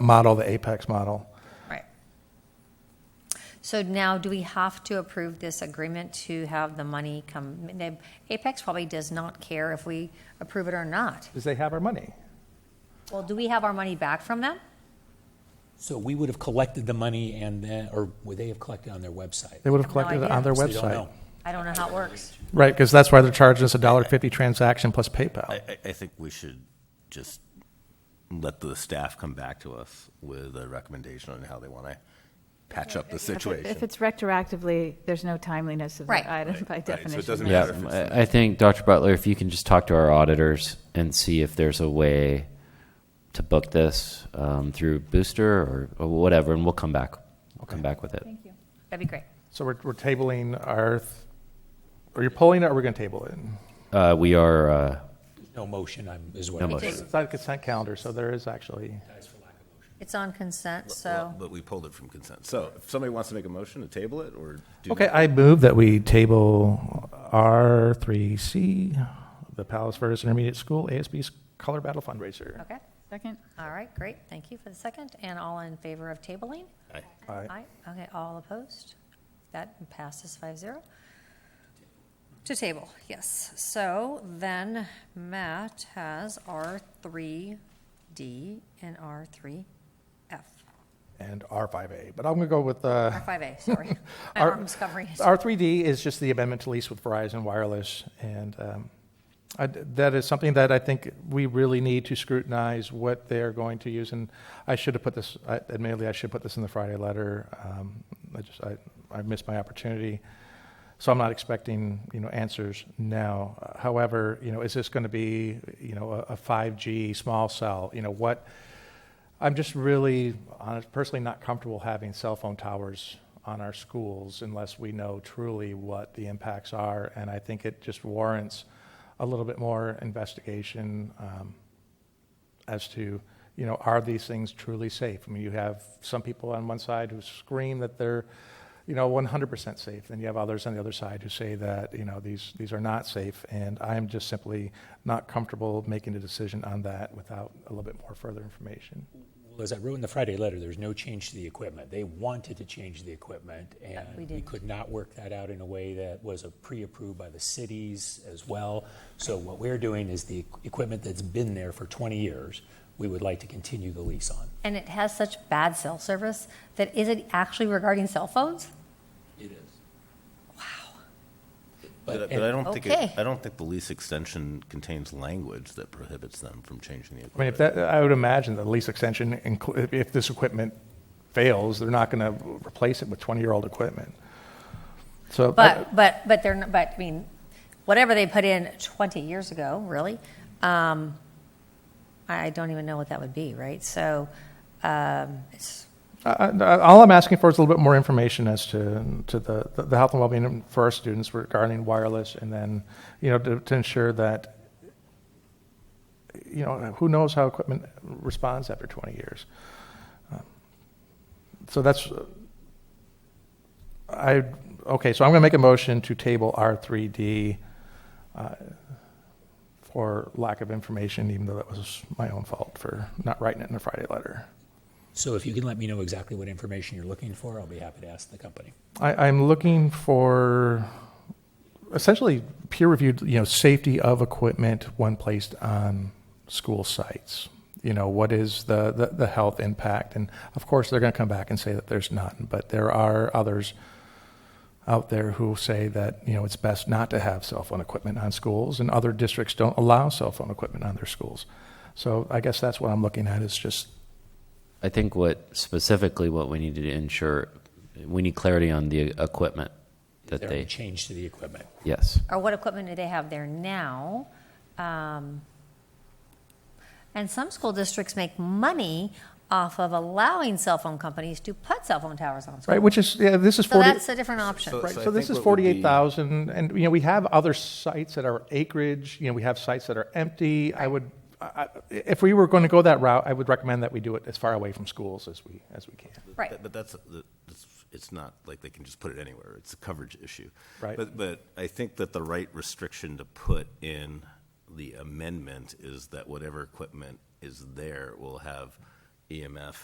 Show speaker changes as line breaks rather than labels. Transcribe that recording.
model, the Apex model.
Right. So now, do we have to approve this agreement to have the money come? they- Apex probably does not care if we approve it or not.
Because they have our money.
Well, do we have our money back from them?
So we would have collected the money and then, or would they have collected on their website?
They would have
no
collected it
idea.
on their
So they don't
website.
know.
I don't know how it works.
Right, because that's why they're charging us a dollar fifty transaction plus
I,
PayPal.
I, I think we should just let the staff come back to us with a recommendation on how they want to patch up the
If
situation.
it's retroactively, there's no timeliness of
Right.
the item by
Right, so it
definition.
doesn't
right?
matter.
Yeah, Um, I I think, Dr. Butler, if you can just talk to our auditors and see if there's a way to book this um, through Booster or- or whatever, and we'll come back. We'll come back with it.
That'd be great.
So we're, we're tabling our, th- are you pulling it or we're going to table it?
Uh, We are, uh,
No motion, I'm, is what
No
I'm
motion.
It's not a consent calendar, so there is actually,
It's on consent,
Well,
so
But we pulled it from consent. So if somebody wants to make a motion to table it or do.
okay, I move that we table R three C, the Palos Verdes Intermediate School ASB's Color Battle Fundraiser.
okay.
Second?
All right, great. Thank you for the second. And all in favor of tabling?
Aye.
Aye.
Okay, all opposed? That passes five zero. To table, yes. So then Matt has R three D and R three F,
And R five A, but I'm going to go with, uh,
R five A, sorry. My
Our-
arm's covering it.
R3D is just the amendment to lease with Verizon Wireless, and um, I- that is something that I think we really need to scrutinize what they're going to use, and I should have put this, I- admittedly, I should put this in the Friday letter. Um, I just, I- I missed my opportunity, so I'm not expecting, you know, answers now. However, you know, is this going to be, you know, a a 5G small cell? You know, what, I'm just really honest, personally not comfortable having cell phone towers on our schools unless we know truly what the impacts are. And I think it just warrants a little bit more investigation um, as to, you know, are these things truly safe? I mean, you have some people on one side who scream that they're, you know, 100% safe. Then you have others on the other side who say that, you know, these, these are not safe. And I'm just simply not comfortable making a decision on that without a little bit more further information.
Well, as I wrote in the Friday letter, there's no change to the equipment. They wanted to change the equipment, and we
didn't.
could not work that out in a way that was a pre-approved by the cities as well. So what we're doing is the equipment that's been there for 20 years, we would like to continue the lease on.
And it has such bad cell service that is it actually regarding cell phones?
It is.
But,
and-
but I don't think, it-
Okay.
I don't think the lease extension contains language that prohibits them from changing
I
the
mean,
equipment.
if that, I would imagine the lease extension, inclu- if- if this equipment fails, they're not going to replace it with 20-year-old equipment. So, I-
But, but, but they're, not- but, I mean, whatever they put in 20 years ago, really, um, I I don't even know what that would be, right? So, um, it's,
I- I- all I'm asking for is a little bit more information as to, to the, the health and well-being for our students regarding wireless, and then, you know, to, to ensure that, you know, who knows how equipment responds after 20 years. Um, So that's, I, okay, so I'm going to make a motion to table R3D uh, for lack of information, even though that was my own fault for not writing it in the Friday letter.
So if you can let me know exactly what information you're looking for, I'll be happy to ask the company.
I, I'm looking for essentially peer-reviewed, you know, safety of equipment when placed on school sites. You know, what is the, the, the health impact? And of course, they're going to come back and say that there's none, but there are others out there who say that, you know, it's best not to have cell phone equipment on schools, and other districts don't allow cell phone equipment on their schools. So I guess that's what I'm looking at is just
I think what specifically what we need to ensure, we need clarity on the equipment
Is
that
there any
they,
change to the equipment?
yes.
or what equipment do they have there now? Um, and some school districts make money off of allowing cell phone companies to put cell phone towers on schools.
right, which is yeah, this is
So
40
that's a different option.
So-
Right,
I
so this is
think what would be-
forty-eight thousand, and, you know, we have other sites that are acreage, you know, we have sites that are empty. I would, I, I- if we were going to go that route, I would recommend that we do it as far away from schools as we, as we can.
Right.
But- But that's, that's- it's not like they can just put it anywhere. It's a coverage issue.
Right.
But, but I think that the right restriction to put in the amendment is that whatever equipment is there will have EMF